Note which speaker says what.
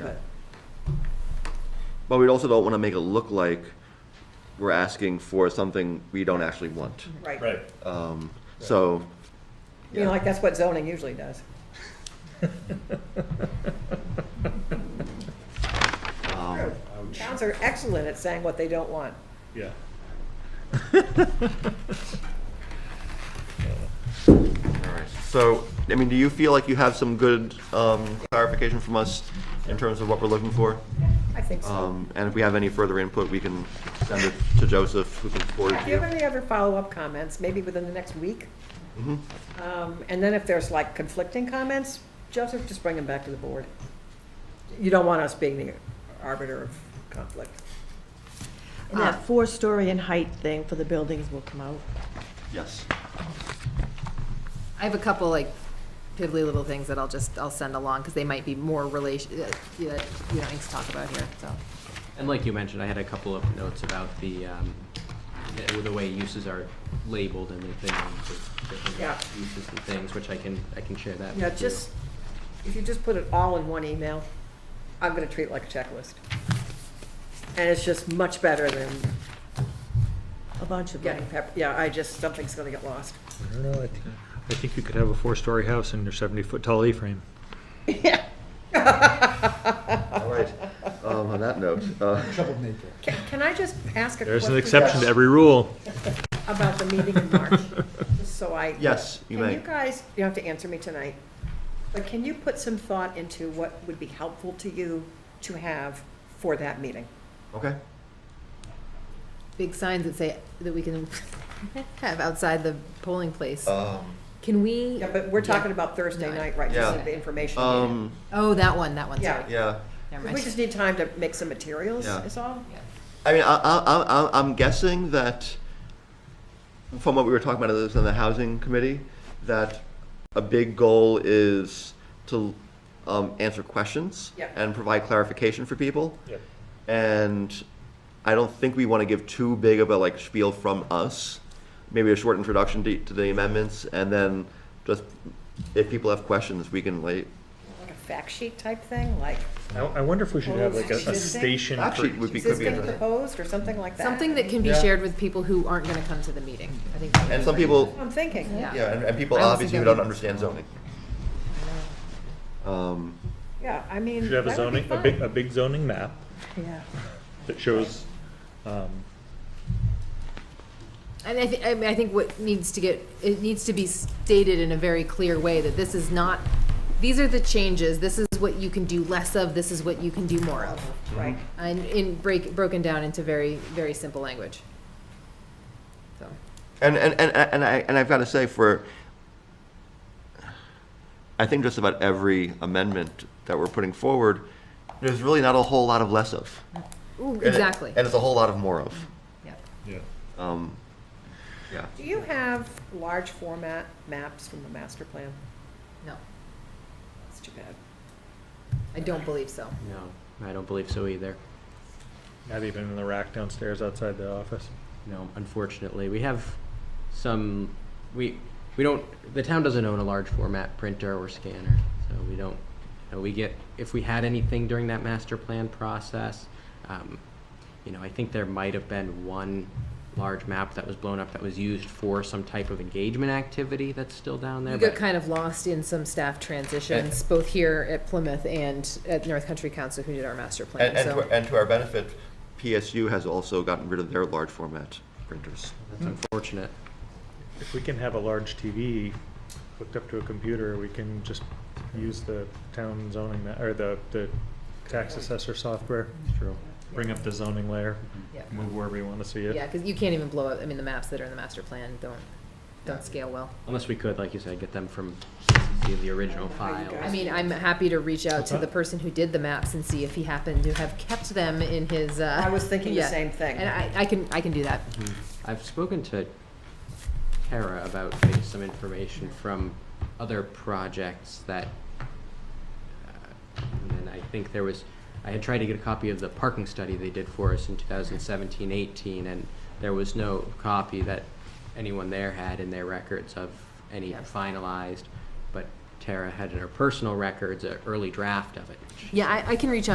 Speaker 1: but
Speaker 2: But we also don't want to make it look like we're asking for something we don't actually want.
Speaker 1: right.
Speaker 3: Right.
Speaker 2: Um, So,
Speaker 1: You know, like that's what zoning usually does.
Speaker 2: um,
Speaker 1: Towns are excellent at saying what they don't want.
Speaker 3: Yeah.
Speaker 2: so, I mean, do you feel like you have some good um, clarification from us in terms of what we're looking for?
Speaker 1: I think so.
Speaker 2: Um, And if we have any further input, we can send it to Joseph, who can forward it
Speaker 1: If
Speaker 2: to
Speaker 1: you have
Speaker 2: you.
Speaker 1: any other follow-up comments, maybe within the next week? Um, And then if there's like conflicting comments, Joseph, just bring them back to the board. You don't want us being the arbiter of conflict.
Speaker 4: And that four-story in height thing for the buildings will come out.
Speaker 2: Yes.
Speaker 5: I have a couple like piddly little things that I'll just, I'll send along, because they might be more relation, uh, that we don't need to talk about here, so.
Speaker 6: And like you mentioned, I had a couple of notes about the, um, the- the way uses are labeled and the things, the
Speaker 1: Yeah.
Speaker 6: different uses and things, which I can, I can share that.
Speaker 1: Yeah,
Speaker 6: with you.
Speaker 1: just, if you just put it all in one email, I'm gonna treat it like a checklist. And it's just much better than
Speaker 4: A bunch of
Speaker 1: getting
Speaker 4: them.
Speaker 1: pep, yeah, I just, something's gonna get lost.
Speaker 7: I don't know, I think, I think you could have a four-story house and your seventy-foot tall E-frame.
Speaker 2: All right. Um, On that note, uh,
Speaker 1: Can, can I just ask a question?
Speaker 7: There's an exception to every rule.
Speaker 1: About the meeting in March, just so I.
Speaker 2: yes, you
Speaker 1: Can
Speaker 2: may.
Speaker 1: you guys, you don't have to answer me tonight, but can you put some thought into what would be helpful to you to have for that meeting?
Speaker 2: Okay.
Speaker 5: Big signs that say, that we can have outside the polling place.
Speaker 2: Um,
Speaker 5: Can we,
Speaker 1: Yeah, but we're talking about Thursday
Speaker 5: No.
Speaker 1: night, right, just
Speaker 2: Yeah.
Speaker 1: the information meeting.
Speaker 2: um,
Speaker 5: oh, that one, that one,
Speaker 1: Yeah.
Speaker 5: sorry,
Speaker 2: Yeah.
Speaker 5: never
Speaker 1: We just
Speaker 5: mind.
Speaker 1: need time to make some materials,
Speaker 2: Yeah.
Speaker 1: is all?
Speaker 2: I mean, I, I, I, I- I'm guessing that from what we were talking about others in the housing committee, that a big goal is to um, answer questions
Speaker 1: Yeah.
Speaker 2: and provide clarification for people.
Speaker 3: Yep.
Speaker 2: And I don't think we want to give too big of a like spiel from us. Maybe a short introduction to, to the amendments, and then just if people have questions, we can like
Speaker 1: Like a fact sheet type thing, like
Speaker 7: I, I wonder if we should have like a, a station for
Speaker 2: actually it would be could be
Speaker 1: existing
Speaker 2: interesting.
Speaker 1: proposed or something like that?
Speaker 5: Something that can be
Speaker 2: Yeah.
Speaker 5: shared with people who aren't gonna come to the meeting, I think. that would
Speaker 2: And
Speaker 5: be
Speaker 2: some
Speaker 5: great.
Speaker 2: people,
Speaker 1: I'm thinking.
Speaker 5: Yeah,
Speaker 2: yeah, and, and people
Speaker 5: I also
Speaker 2: obviously who
Speaker 5: don't-
Speaker 2: don't understand zoning. Um,
Speaker 1: Yeah, I mean.
Speaker 3: You should have a
Speaker 1: that would be
Speaker 3: zoning, a
Speaker 1: fun.
Speaker 3: big, a big zoning map
Speaker 4: Yeah.
Speaker 3: that shows, um,
Speaker 5: And I thi- I mean, I think what needs to get, it needs to be stated in a very clear way that this is not, these are the changes, this is what you can do less of, this is what you can do more of.
Speaker 1: Right.
Speaker 5: And in break, broken down into very, very simple language. So,
Speaker 2: And and, and, and I and I've got to say for I think just about every amendment that we're putting forward, there's really not a whole lot of less of.
Speaker 5: ooh,
Speaker 2: And it-
Speaker 5: exactly,
Speaker 2: And, it's a whole lot of more of.
Speaker 5: yeah.
Speaker 3: yeah.
Speaker 2: Um, yeah.
Speaker 1: Do you have large format maps from the master plan?
Speaker 5: No,
Speaker 1: That's too bad.
Speaker 5: I don't believe so.
Speaker 6: No, I don't believe so either.
Speaker 7: not even in the rack downstairs outside the office.
Speaker 6: No, unfortunately, we have some, we, we don't, the town doesn't own a large format printer or scanner, so we don't, you know, we get, if we had anything during that master plan process, um, you know, I think there might have been one large map that was blown up that was used for some type of engagement activity that's still down there.
Speaker 5: You got
Speaker 6: but-
Speaker 5: kind of lost in some staff transitions, both here at Plymouth and at North Country Council, who did our master plan,
Speaker 2: And, and,
Speaker 5: so.
Speaker 2: to, and to our benefit, PSU has also gotten rid of their large format printers.
Speaker 6: That's unfortunate.
Speaker 7: If we can have a large TV hooked up to a computer, we can just use the town zoning, ma- or the, the tax assessor software.
Speaker 6: True.
Speaker 7: Bring up the zoning layer,
Speaker 5: Yeah.
Speaker 7: move wherever you want to see it.
Speaker 5: Yeah, because you can't even blow up, I mean, the maps that are in the master plan don't, don't scale well.
Speaker 6: Unless we could, like you said, get them from CCC, the original file.
Speaker 5: I mean, I'm happy to reach out to the person who did the maps and see if he happened to have kept them in his, uh.
Speaker 1: I was thinking the
Speaker 5: yeah.
Speaker 1: same thing.
Speaker 5: And I, I can, I can do that.
Speaker 6: I've spoken to Kara about getting some information from other projects that, uh, and then I think there was, I had tried to get a copy of the parking study they did for us in 2017, 18, and there was no copy that anyone there had in their records of any
Speaker 5: Yes.
Speaker 6: finalized, but Tara had in her personal records, an early draft of it. which
Speaker 5: Yeah, I, I can reach out